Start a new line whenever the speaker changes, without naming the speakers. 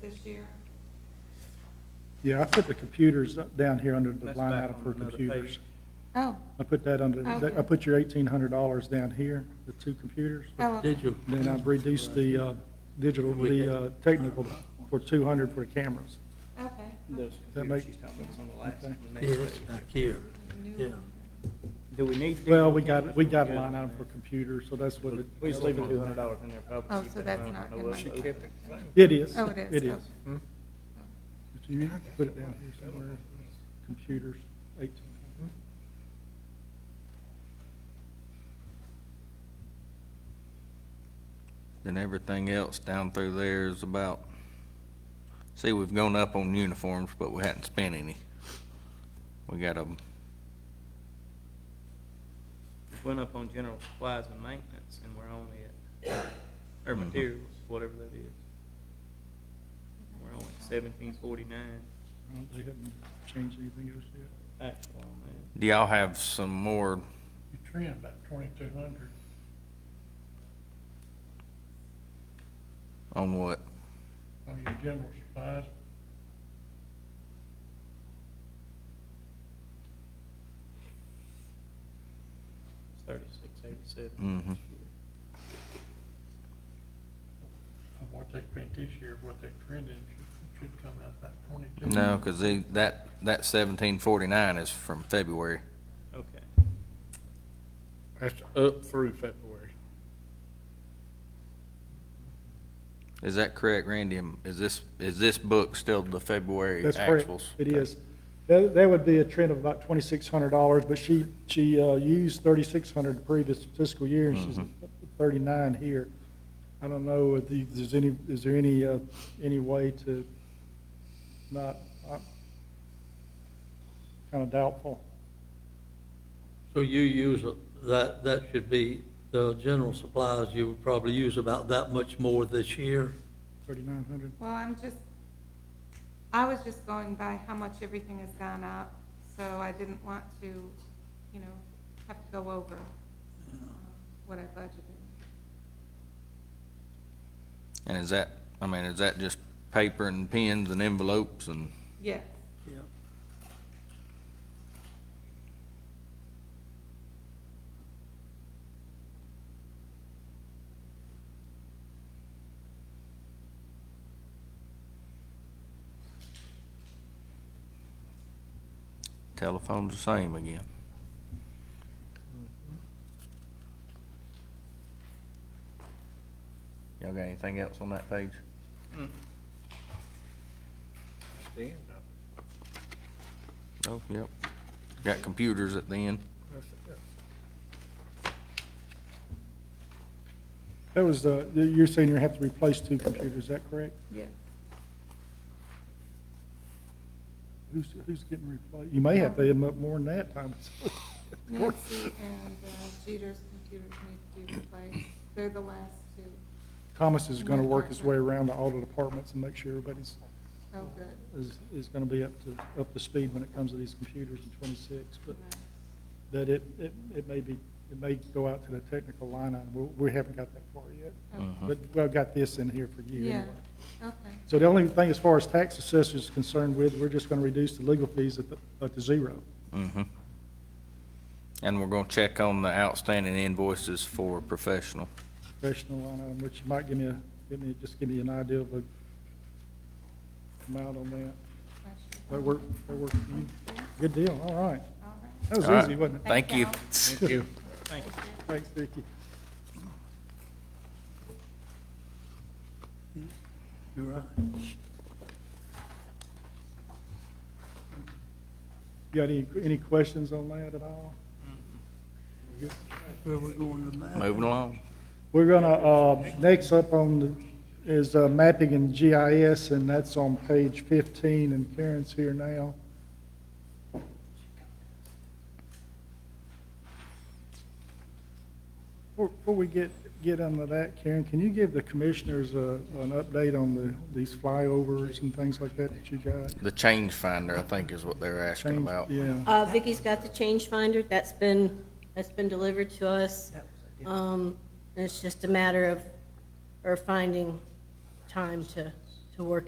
this year?
Yeah, I put the computers up- down here under the
That's
line
back
item
on
for
another
computers.
page.
Oh,
I put that under,
Okay.
I put your eighteen hundred dollars down here, the two computers.
oh, okay.
Did you?
Then I reduced the uh, digital, the uh, technical for two hundred for the cameras.
okay.
Those
That
computers
make-
she's talking about on the last,
okay.
the
Yeah,
next
that's
page.
back here, yeah.
Do we need? to-
Well, we got, we got a line item for computers, so that's what it.
We just leave the two hundred dollars in there probably.
Oh, so that's not in my- She kept
It is.
Oh, it is,
It
okay.
is.
Hmm?
Oh.
But You have to put it down here somewhere, computers, eighteen.
Then everything else down through there is about, see, we've gone up on uniforms, but we hadn't spent any. We got a,
Went up on general supplies and maintenance and we're only at, or
Mhm.
materials, whatever that is. We're only seventeen forty-nine Hmm?
They haven't changed anything else yet.
actual on that.
do y'all have some more,
You trim about twenty-two hundred,
on what?
on your general supplies,
Thirty-six eighty-seven.
Mhm.
of what they spent this year, what they trended, should- should come out about twenty-two.
No, because that, that seventeen forty-nine is from February.
Okay.
That's up through February.
Is that correct, Randy? Am- Is this, is this book still the February
That's correct.
actuals?
It is. That, that would be a trend of about twenty-six hundred dollars, but she, she, uh, used thirty-six hundred the previous fiscal year, and she's
Mhm.
thirty-nine here. I don't know if the, there's any, is there any, uh, any way to not, I'm kind of doubtful.
So you use, a- that, that should be, the general supplies, you would probably use about that much more this year.
Thirty-nine hundred?
Well, I'm just, I was just going by how much everything has gone up, so I didn't want to, you know, have to go over um, what I budgeted.
And is that, I mean, is that just paper and pens and envelopes and?
Yes,
Yeah.
Telephone's the same again. Y'all got anything else on that page?
Mm. Damn.
Oh, yep. Got computers at the end.
That was, uh, you're saying you have to replace two computers, is that correct?
yes.
Who's, who's getting replaced? You may have to end up more than that, Thomas.
Nancy and uh, Jeter's computers need to be replaced. They're the last two.
Thomas is gonna work his way around the audit departments and make sure everybody's
Oh, good.
is, is gonna be up to, up to speed when it comes to these computers in twenty-six, but
Right.
that it, it, it may be, it may go out to the technical line item, we, we haven't got that far yet.
Okay.
But, well, I've got this in here for you
Yeah,
anyway.
okay.
So the only thing as far as tax assessor is concerned with, we're just gonna reduce the legal fees at, the- at the zero.
Mm-hmm. And we're gonna check on the outstanding invoices for professional.
Professional line item, which might give me a, give me, just give me an idea of the amount on that. That work, that work for you? Good deal, all right.
All right.
That
All
was
right.
easy, wasn't it?
Thank you.
Thank
Thank you.
Thank you.
Thanks, Vicki.
You're right.
You got any, any questions on that at all?
Where we going to that?
Moving along.
We're gonna, uh, next up on the, is uh, mapping and GIS, and that's on page fifteen, and Karen's here now. Before before we get, get into that, Karen, can you give the commissioners a, an update on the, these flyovers and things like that that you got?
The change finder, I think, is what they're asking
Change-
about.
Yeah.
Uh, Vicki's got the change finder, that's been, that's been delivered to us. Um, it's just a matter of, her finding time to, to work